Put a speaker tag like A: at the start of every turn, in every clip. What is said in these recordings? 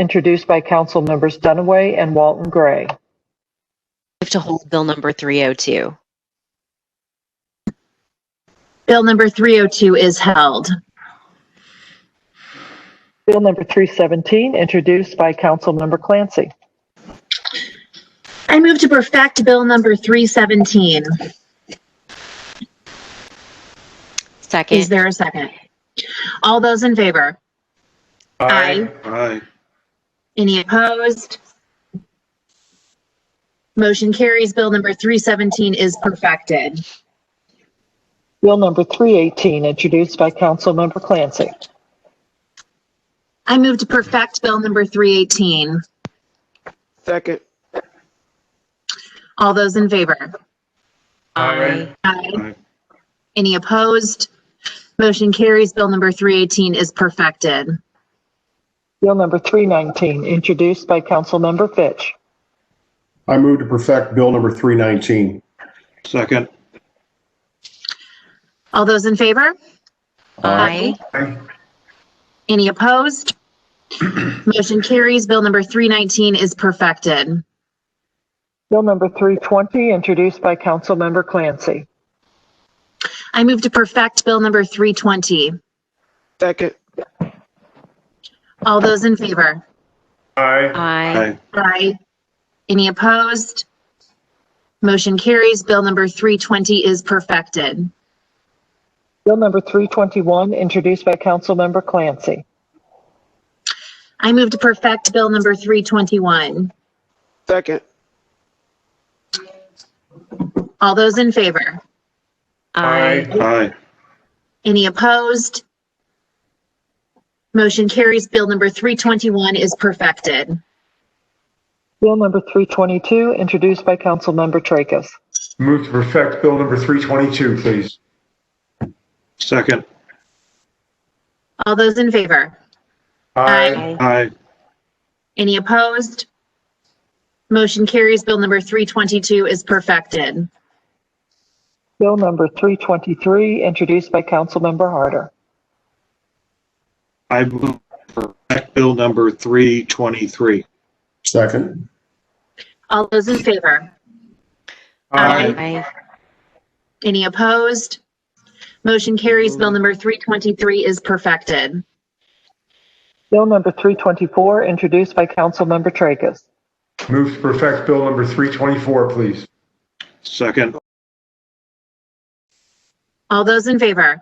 A: introduced by council members Dunaway and Walton Gray.
B: Move to hold Bill number 302.
C: Bill number 302 is held.
A: Bill number 317, introduced by council member Clancy.
C: I move to perfect Bill number 317. Is
B: Second.
C: there a second? All those in favor? Aye.
D: Aye.
C: Any opposed? Motion carries. Bill number 317 is perfected.
A: Bill number 318, introduced by council member Clancy.
C: I move to perfect Bill number 318.
D: Second.
C: All those in favor?
B: Aye.
C: Aye.
D: Aye.
C: Any opposed? Motion carries. Bill number 318 is perfected.
A: Bill number 319, introduced by council member Fitch.
E: I move to perfect Bill number 319.
D: Second.
C: All those in favor?
B: Aye.
C: Any opposed? Motion carries. Bill number 319 is perfected.
A: Bill number 320, introduced by council member Clancy.
C: I move to perfect Bill number 320.
D: Second.
C: All those in favor?
B: Aye.
C: Aye. Any opposed? Motion carries. Bill number 320 is perfected.
A: Bill number 321, introduced by council member Clancy.
C: I move to perfect Bill number 321.
D: Second.
C: All those in favor?
B: Aye.
D: Aye.
C: Any opposed? Motion carries. Bill number 321 is perfected.
A: Bill number 322, introduced by council member Tracus.
E: Move to perfect Bill number 322, please.
D: Second.
C: All those in favor? Aye.
D: Aye.
C: Any opposed? Motion carries. Bill number 322 is perfected.
A: Bill number 323, introduced by council member Harder.
D: I move for Act Bill number 323.
E: Second.
C: All those in favor? Aye.
B: Aye.
C: Any opposed? Motion carries. Bill number 323 is perfected.
A: Bill number 324, introduced by council member Tracus.
E: Move to perfect Bill number 324, please.
D: Second.
C: All those in favor?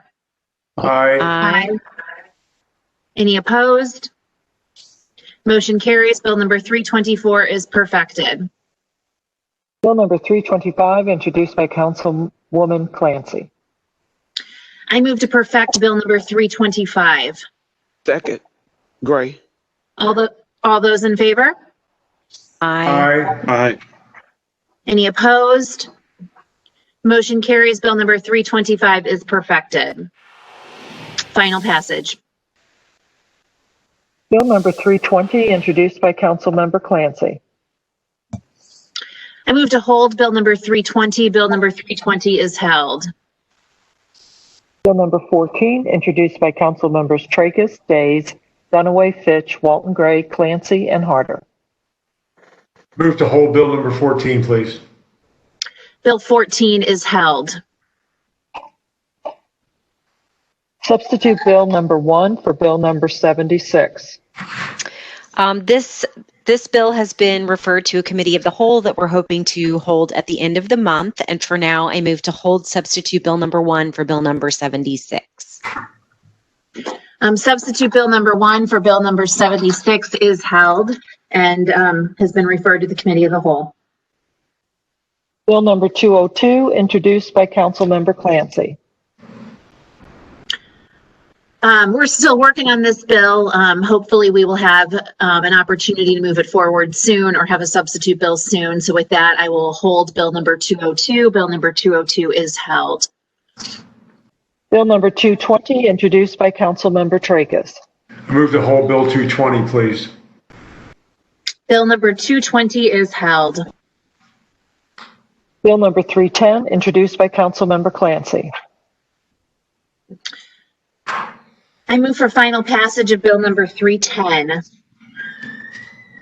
E: Aye.
B: Aye.
C: Any opposed? Motion carries. Bill number 324 is perfected.
A: Bill number 325, introduced by councilwoman Clancy.
C: I move to perfect Bill number 325.
D: Second. Gray.
C: All the, all those in favor?
B: Aye.
E: Aye.
D: Aye.
C: Any opposed? Motion carries. Bill number 325 is perfected. Final passage.
A: Bill number 320, introduced by council member Clancy.
C: I move to hold Bill number 320. Bill number 320 is held.
A: Bill number 14, introduced by council members Tracus, Days, Dunaway, Fitch, Walton Gray, Clancy, and Harder.
E: Move to hold Bill number 14, please.
C: Bill 14 is held.
A: Substitute Bill number 1 for Bill number 76.
B: Um, This, this bill has been referred to a committee of the whole that we're hoping to hold at the end of the month. And for now, I move to hold substitute Bill number 1 for Bill number 76.
C: Um, substitute Bill number one for Bill number 76 is held and um, has been referred to the committee of the whole.
A: Bill number 202, introduced by Councilmember Clancy.
C: Um, we're still working on this bill. Um, hopefully we will have um, an opportunity to move it forward soon or have a substitute bill soon. So with that, I will hold Bill number 202. Bill number 202 is held.
A: Bill number 220, introduced by Councilmember Tracus.
E: Move to hold Bill 220, please.
C: Bill number 220 is held.
A: Bill number 310, introduced by Councilmember Clancy.
C: I move for final passage of Bill number 310.